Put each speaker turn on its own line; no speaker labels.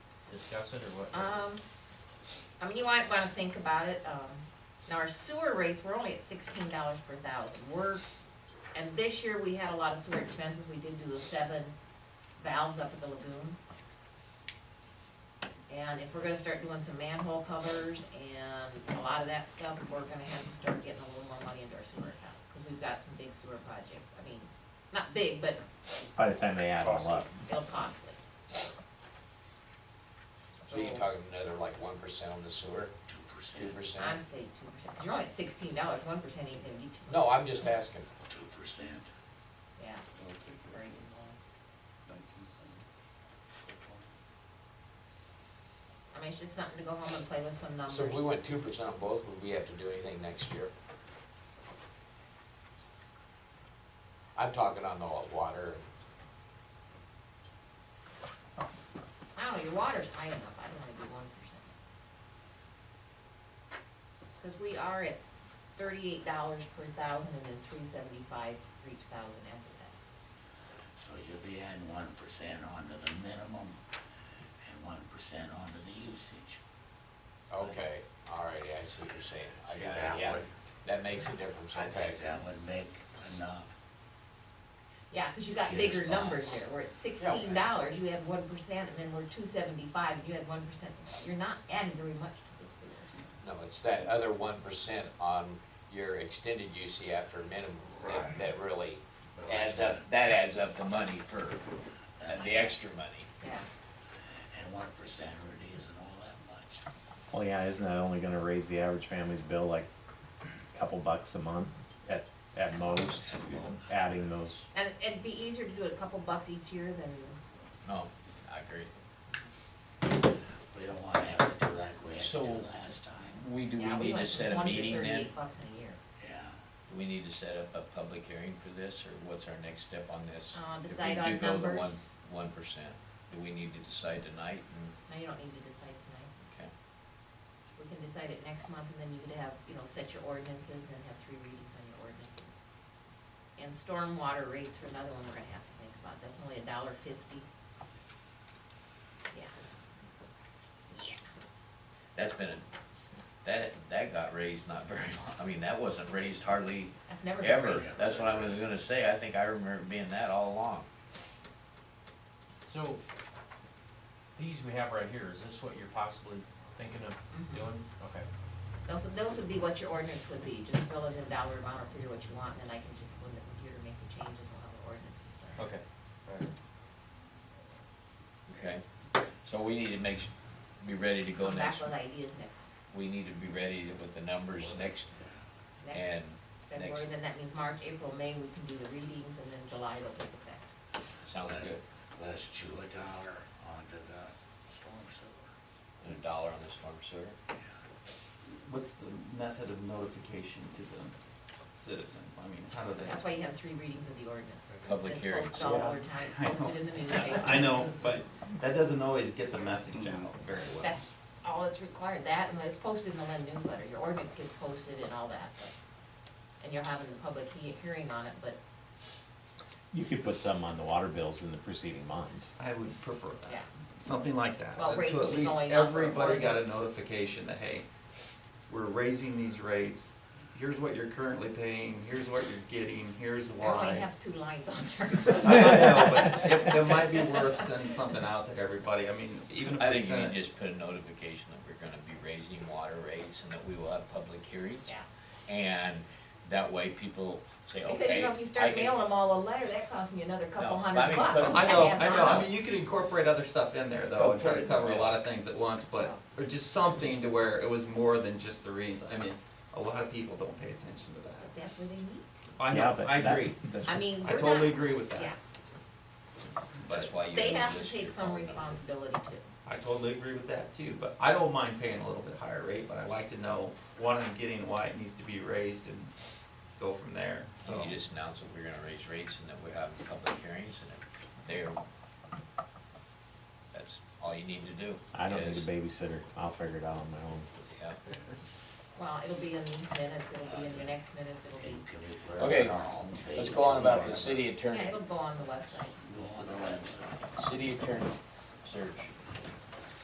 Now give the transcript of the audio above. discuss it or what?
Um, I mean, you might wanna think about it, um, now our sewer rates, we're only at sixteen dollars per thousand, we're, and this year we had a lot of sewer expenses, we did do the seven valves up at the lagoon. And if we're gonna start doing some manhole covers and a lot of that stuff, we're gonna have to start getting a little more money into our sewer account, cause we've got some big sewer projects, I mean, not big, but
by the time they add them up.
they'll costly.
So you're talking another like one percent on the sewer? Two percent. Two percent?
I'd say two percent, you're only at sixteen dollars, one percent ain't gonna be too much.
No, I'm just asking.
Two percent.
Yeah, very good. I mean, it's just something to go home and play with some numbers.
So if we went two percent on both, would we have to do anything next year? I'm talking on the water.
I don't know, your water's high enough, I don't wanna do one percent. Cause we are at thirty-eight dollars per thousand and then three seventy-five for each thousand after that.
So you'll be adding one percent onto the minimum and one percent onto the usage.
Okay, all righty, I see what you're saying. I
See,
got
that
it, yeah.
would-
That makes a difference,
I
okay.
think that would make enough.
Yeah, cause you got
Yes,
bigger
well.
numbers there, we're at sixteen dollars, you have one percent, and then we're two seventy-five, and you have one percent, you're not adding very much to the sewer.
No, it's that other one percent on your extended UC after minimum that,
Right.
that really
Well,
adds
that's
up, that adds up the money for, uh, the extra money.
Yeah,
And one percent really isn't all that much.
Well, yeah, isn't that only gonna raise the average family's bill like a couple bucks a month at, at most? Adding those,
and it'd be easier to do it a couple bucks each year than,
No, I agree.
We don't wanna have to do like we had to
So-
do last time,
We, do
yeah,
we
we
need to
went
set
from
a
twenty to
meeting then?
thirty-eight bucks in a year.
yeah.
Do we need to set up a public hearing for this, or what's our next step on this?
Uh, decide on
If we do go the one,
numbers.
one percent, do we need to decide tonight, and,
No, you don't need to decide tonight.
okay,
We can decide it next month, and then you could have, you know, set your ordinances, and then have three readings on your ordinances. And stormwater rates are another one we're gonna have to think about, that's only a dollar fifty. Yeah. Yeah.
That's been, a- that, that got raised not very long, I mean, that wasn't raised hardly
That's never been
ever.
raised.
That's what I was gonna say, I think I remember it being that all along.
So, these we have right here, is this what you're possibly thinking of
Mhm.
doing? Okay.
Those, those would be what your ordinance would be, just fill it in dollar amount or figure what you want, and then I can just go in the computer, make the changes, and have the ordinance is done.
Okay.
Okay, so we need to make, s- be ready to go
Come back
next,
with ideas next,
we need to be ready to- with the numbers next,
next
and,
February,
next-
then that means March, April, May, we can do the readings, and then July it'll take effect.
sounds good,
Let's chew a dollar onto the storm sewer.
and a dollar on the storm sewer.
What's the method of notification to the citizens? I mean, how do they?
That's why you have three readings of the ordinance.
Public
It's
hearings.
Posted all over
Yeah.
town, posted in the newspaper.
I know, but that doesn't always get the message out very well.
That's all that's required, that, and it's posted in the Lynn newsletter, your ordinance gets posted and all that, but, and you're having a public he- hearing on it, but,
you could put some on the water bills in the preceding months.
I would prefer
yeah.
that, something like that.
Well,
that
rates will be
To at
going
least
up or
everybody got a
ordinance.
notification that, hey, we're raising these rates, here's what you're currently paying, here's what you're getting, here's
I only
why.
have two lines on
I
there.
don't know, but it, it might be worth sending something out to everybody, I mean, even if
I
we
think you
send
need
it.
to just put a notification that we're gonna be raising water rates and that we will have public hearings.
Yeah,
And that way people say, okay.
because you know, if you
I
start
can-
mailing them all a letter, that costs me another couple
No, I
hundred
mean,
bucks.
put-
I know,
have
I know,
that.
I mean, you could incorporate other stuff in there though, and try to cover a lot of things at once, but, or just something to where it was more than just the readings, I mean, a lot of people don't pay attention to that.
That's where they meet.
I
Yeah,
know,
but
I
that-
agree,
that's-
I mean,
I
we're
totally
not-
agree with
Yeah,
that,
That's why you.
they
need
have to
this
take
your
some
phone number.
responsibility too.
I totally agree with that too, but I don't mind paying a little bit higher rate, but I like to know what I'm getting, why it needs to be raised and go from there,
So
so.
you just announce that we're gonna raise rates and that we have public hearings and if they're, that's all you need to do.
I don't need a
is-
babysitter, I'll figure it out on my own.
Yeah,
Well, it'll be in these minutes, it'll be in the next minutes, it'll be,
Can, can we put it
Okay,
on our homepage?
let's go on about the city attorney,
yeah, it'll go on the website.
uh, Go on the website.
city attorney search.